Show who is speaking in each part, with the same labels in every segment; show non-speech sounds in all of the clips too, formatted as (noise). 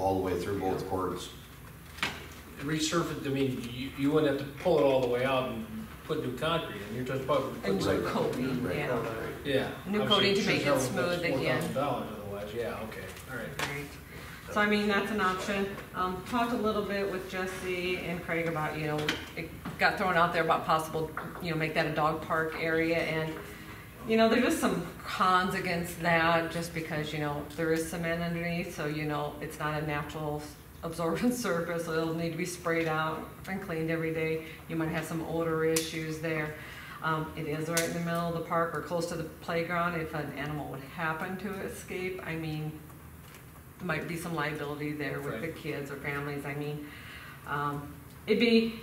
Speaker 1: all the way through both courts.
Speaker 2: Resurface, I mean, you, you wouldn't have to pull it all the way out and put new concrete in, you're just probably.
Speaker 3: A
Speaker 2: putting-
Speaker 3: new coating,
Speaker 1: Right.
Speaker 3: yeah.
Speaker 2: Yeah.
Speaker 3: New
Speaker 2: Obviously,
Speaker 3: coating to make it
Speaker 2: sure it's
Speaker 3: smooth
Speaker 2: $4,000
Speaker 3: again.
Speaker 2: Otherwise, yeah, okay, all right.
Speaker 3: Right. So I mean, that's an option. Um, talked a little bit with Jesse and Craig about, you know, it got thrown out there about possible, you know, make that a dog park area and, you know, there's just some cons against that, just because, you know, there is cement underneath, so you know, it's not a natural absorbent (laughs) surface, so it'll need to be sprayed out and cleaned every day. You might have some odor issues there. Um, it is right in the middle of the park or close to the playground. If an animal would happen to escape, I mean, might be some liability there with the
Speaker 2: Right.
Speaker 3: kids or families, I mean. Um, it'd be,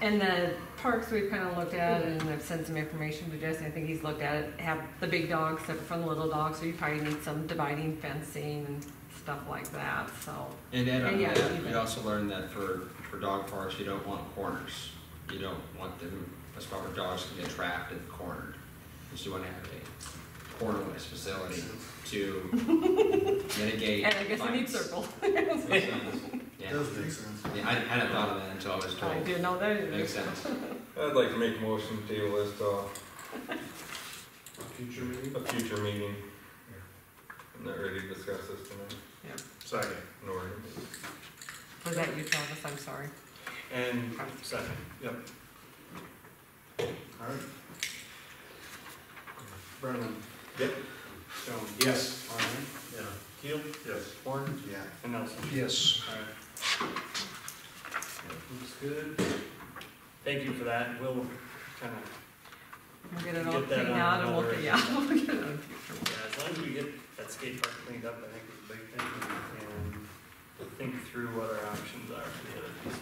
Speaker 3: and the parks we've kind of looked at, and I've sent some information to Jesse, I think he's looked at it, have the big dogs separate from the little dogs, so you probably need some dividing fencing and stuff like that, so.
Speaker 4: And add on
Speaker 3: And
Speaker 4: to
Speaker 3: yeah,
Speaker 4: that,
Speaker 3: even-
Speaker 4: we also learned that for, for dog parks, you don't want corners. You don't want them, a spot where dogs can get trapped and cornered. Because you want to have a cornerless facility
Speaker 3: (laughs)
Speaker 4: to mitigate.
Speaker 3: And I guess I need
Speaker 4: violence.
Speaker 3: circle.
Speaker 4: Yeah,
Speaker 5: make sense.
Speaker 4: yeah, I I hadn't thought of that until I was told.
Speaker 3: I didn't know that.
Speaker 4: Makes sense.
Speaker 6: I'd like to make a motion to table this to
Speaker 5: uh, Future meeting?
Speaker 6: a future meeting. I'm not ready to discuss this tonight,
Speaker 5: Second.
Speaker 6: nor.
Speaker 3: Was that you, Travis? I'm sorry.
Speaker 5: And second, yep. All right. Brennan?
Speaker 6: Yep.
Speaker 5: Stone? Yes. All right. Yeah. Keel? Yes. Horn? Yeah. And Nelson?
Speaker 2: Yes.
Speaker 5: All right. Looks good. Thank you for that. We'll kind of,
Speaker 3: We'll get it all
Speaker 5: Get that
Speaker 3: cleaned
Speaker 5: on
Speaker 3: out and we'll,
Speaker 5: another-
Speaker 3: yeah, (laughs) we'll get it on future.
Speaker 5: yeah, as long as we get that skate park cleaned up, I think it's a big thing. And think through what our options are for the other piece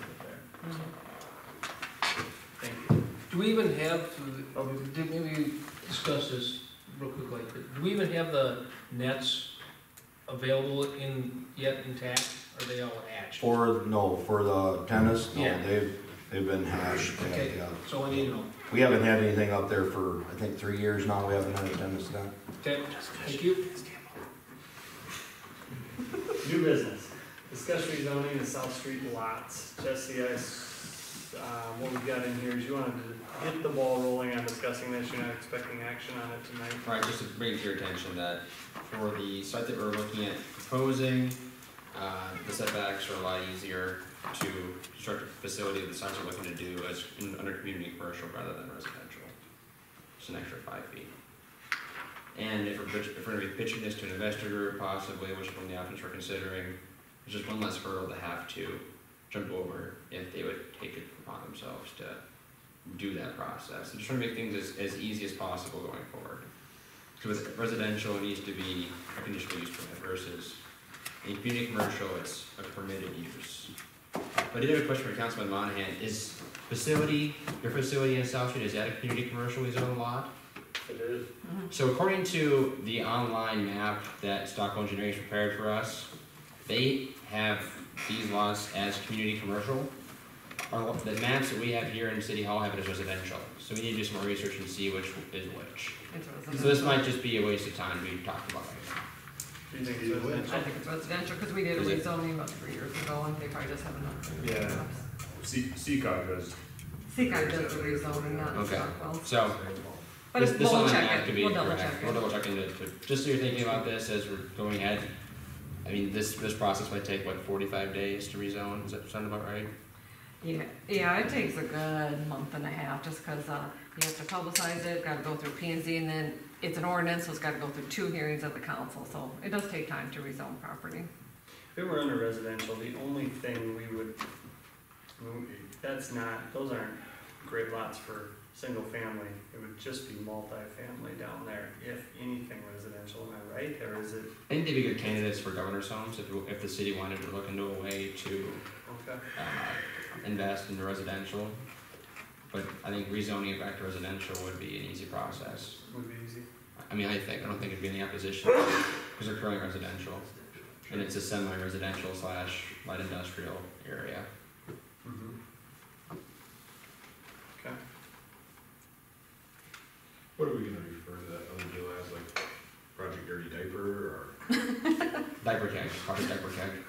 Speaker 5: of it there.
Speaker 3: Mhm.
Speaker 5: Thank you.
Speaker 2: Do we even have, did we discuss this real quickly? Do we even have the nets available in, yet intact? Are they all hatched?
Speaker 1: For, no, for the tennis, no,
Speaker 2: Yeah.
Speaker 1: they've, they've been hashed. yeah,
Speaker 2: Okay.
Speaker 1: yeah.
Speaker 2: So I need to know.
Speaker 1: We haven't had anything up there for, I think, three years now. We haven't had a tennis net.
Speaker 2: Okay, thank you.
Speaker 5: New business, discuss rezoning the South Street lots. Jesse, I, s- uh, what we've got in here is you wanted to get the ball rolling on discussing this, you're not expecting action on it tonight.
Speaker 4: All right, just to bring to your attention that for the site that we're looking at proposing, uh, the setbacks are a lot easier to construct a facility of the size we're looking to do as in, under community commercial rather than residential. Just an extra five feet. And if we're, pitch- if we're gonna be pitching this to an investor group possibly, which is one of the options we're considering, it's just one less hurdle to have to jump over if they would take it upon themselves to do that process. And just trying to make things as, as easy as possible going forward. Because with residential, it needs to be a conditional use permit versus in community commercial, it's a permitted use. But I did have a question for Councilman Monahan, is facility, your facility in South Street, is that a community commercially zoned lot?
Speaker 5: It is.
Speaker 4: So according to the online map that Stockholm Engineering has prepared for us, they have these lots as community commercial. Our, the maps that we have here in City Hall have it as residential, so we need to do some more research and see which is which.
Speaker 3: It's
Speaker 4: So this
Speaker 3: residential.
Speaker 4: might just be a waste of time we talked about it.
Speaker 5: Do you think it's
Speaker 3: I
Speaker 5: residential?
Speaker 3: think it's residential, because we did a
Speaker 4: Is it-
Speaker 3: rezoning about three years ago, and they probably just haven't. updated their
Speaker 7: Yeah.
Speaker 3: maps.
Speaker 7: C- CCOG does.
Speaker 3: Seaguy does the rezoning, not
Speaker 4: Okay.
Speaker 3: Stockwell.
Speaker 4: So
Speaker 3: But
Speaker 4: this,
Speaker 3: it's,
Speaker 4: this
Speaker 3: we'll
Speaker 4: online
Speaker 3: check
Speaker 4: map
Speaker 3: it,
Speaker 4: could be
Speaker 3: we'll double
Speaker 4: incorrect.
Speaker 3: check
Speaker 4: We'll
Speaker 3: it.
Speaker 4: double check into it, but just so you're thinking about this as we're going ahead. I mean, this, this process might take, what, forty-five days to rezone, does that sound about right?
Speaker 3: Yeah, yeah, it takes a good month and a half, just because, uh, you have to publicize it, gotta go through P and Z, and then it's an ordinance, so it's gotta go through two hearings at the council, so it does take time to rezone property.
Speaker 5: If it were under residential, the only thing we would, that's not, those aren't great lots for single family. It would just be multi-family down there, if anything residential, am I right, or is it,
Speaker 4: I think they'd be good candidates for governor's homes if, if the city wanted to look into a way to,
Speaker 5: okay?
Speaker 4: uh, invest in residential. But I think rezoning it back to residential would be an easy process.
Speaker 5: Would be easy.
Speaker 4: I mean, I think, I don't think it'd be any opposition, because they're currently residential, and it's a semi-residential slash light industrial area.
Speaker 5: Mm-hmm. Okay.
Speaker 7: What are we gonna refer to that other deal as, like Project Dirty Diaper or?
Speaker 4: Diaper tech, probably diaper tech.